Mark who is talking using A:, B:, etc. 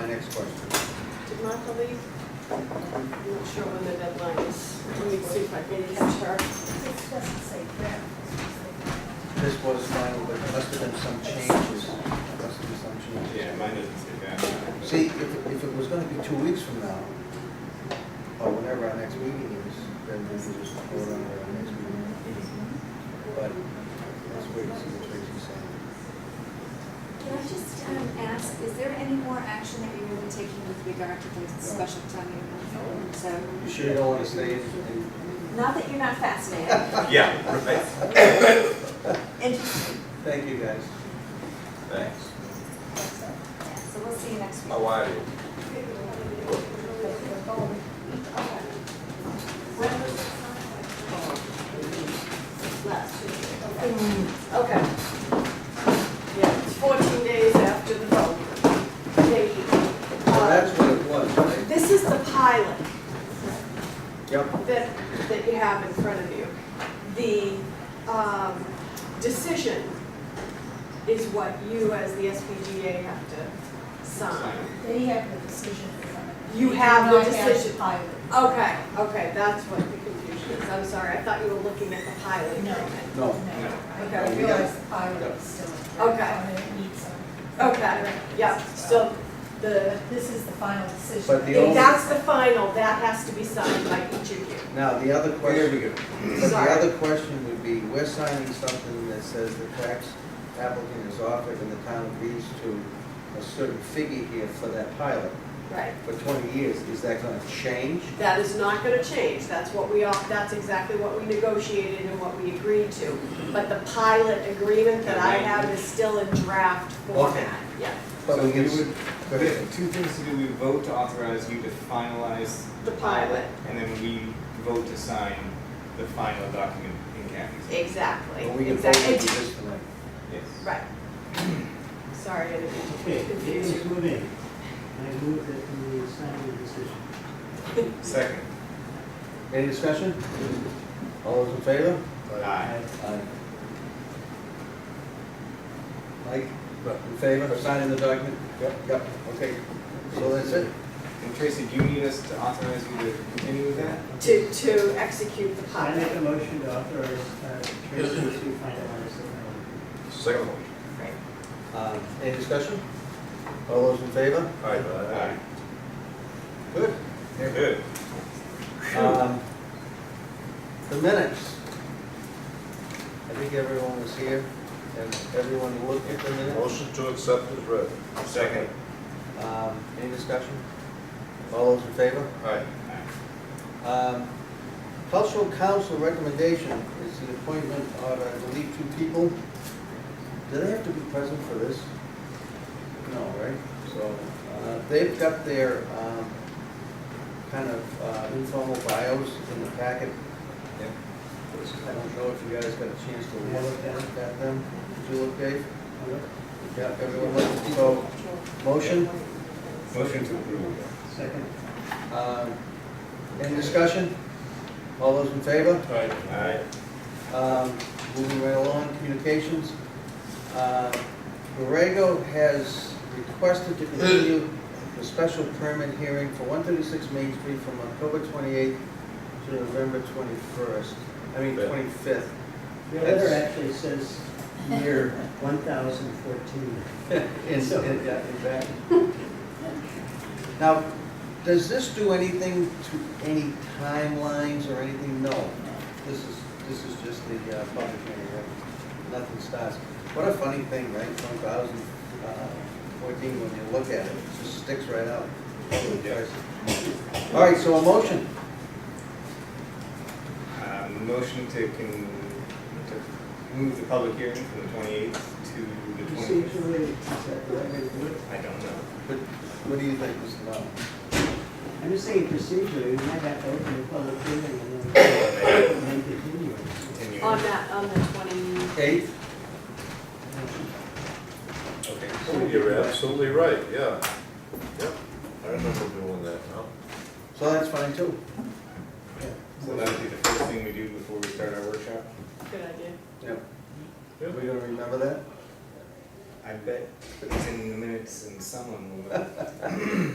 A: next question.
B: Did Martha leave? I'm not sure when the deadline is. Let me see if I can catch her.
C: This doesn't say draft, this is like-
A: This was final, but there must have been some changes. Must have been some changes.
D: Yeah, mine doesn't say that.
A: See, if, if it was gonna be two weeks from now, or whenever our next meeting is, then we can just vote on it at our next meeting. But let's wait and see what Tracy's saying.
E: Can I just um, ask, is there any more action that you will be taking with regard to the special town meeting? So,
A: You sure you don't wanna stay in, in?
E: not that you're not fascinated.
D: Yeah, right,
E: Interesting.
A: Thank you, guys.
D: thanks.
E: Yeah, So we'll see you next week.
D: How are you?
B: Last year. Okay. Yeah, it's 14 days after the vote. They,
A: Well,
B: uh,
A: that's what it was, right?
B: This is the pilot
A: Yep.
B: that, that you have in front of you. The um, decision is what you as the SPGA have to sign.
C: They have the decision in front of them.
B: You have the
C: I have
B: decision.
C: Pilot.
B: Okay, okay, that's what the confusion is. I'm sorry, I thought you were looking at the pilot
C: No.
B: agreement.
A: No.
C: No,
B: Okay,
C: I
A: we
C: realize
A: got-
C: the pilot is still.
B: Okay.
C: on it, it needs some-
B: Okay, yeah, so the,
C: This is the final decision.
A: But the only-
B: that's the final, that has to be signed by each of you.
A: Now, the other
D: Here
A: question,
D: we go.
A: but the
B: Sorry.
A: other question would be, we're signing something that says the tax applicant is offered and the town agrees to a certain figure here for that pilot
B: Right.
A: for twenty years. Is that gonna change?
B: That is not gonna change, that's what we all, that's exactly what we negotiated and what we agreed to. But the pilot agreement that I have is still in draft format, yeah.
A: But
D: So
A: we
D: we
A: can, s-
D: would,
A: go ahead.
D: two things to do, we vote to authorize you to finalize.
B: The pilot.
D: And then we vote to sign the final document in Kathy's.
B: Exactly,
A: Well, we can vote
B: exactly.
A: on this tonight.
D: Yes.
B: Right. Sorry, I didn't
F: Okay,
B: mean to confuse
F: Davis
B: you.
F: Woodin, I move that we sign the decision.
D: Second.
A: Any discussion? All those in favor?
D: Aye.
A: Aye. Mike, in favor of signing the document? Yep. Yep, okay. So that's it?
D: And Tracy, do you need us to authorize you to continue with that?
B: To, to execute the
F: I make a
B: pilot.
F: motion to authorize uh, Tracy to finalize the
D: Second one.
B: Right.
A: Um, Any discussion? All those in favor?
D: Aye.
A: Good.
D: Good.
A: Um, The minutes. I think everyone was here and everyone looked at the minutes.
G: Motion to accept is read.
D: Second.
A: Um, Any discussion? All those in favor?
G: Aye.
A: Um, Cultural Council recommendation is the appointment of, I believe, two people. Do they have to be present for this? No, right? So, uh, they've got their um, kind of uh, informal bios in the packet. I don't know if you guys got a chance to look at at them. Did you look, Dave?
F: final.
A: Yeah, everyone looked. So, motion,
D: Motion to approve.
F: Second,
A: um, any discussion? All those in favor?
D: Aye.
A: Um, Moving right along, communications. Uh, Borrego has requested to continue the special permit hearing for 136 Main Street from October 28th to November 21st, I mean, 25th.
F: your letter actually says year 1014.
A: In- in- yeah, in fact. Now, does this do anything to any timelines or anything? No. This is, this is just the uh, public hearing, right? Nothing starts. What a funny thing, right? One thousand uh, fourteen, when you look at it, it just sticks right out. All right, so a motion.
D: Uh, Motion to con, to move the public hearing from the twenty-eighth to the twenty-fifth.
F: Procedurally, is that the right way to do it?
D: I don't know.
A: But what do you think, Mr. Bowden?
F: I'm just saying procedurally, we might have to open the public hearing and then and then continue. it.
D: Continue.
B: On that, on the twenty,
A: Eight?
D: Okay.
G: Oh, You're absolutely right, yeah. Yep, I remember doing that now.
A: So that's fine too.
D: So that would be the first thing we do before we start our workshop?
B: good idea.
A: Yep. We're gonna remember that?
D: I bet it's in the minutes and someone will.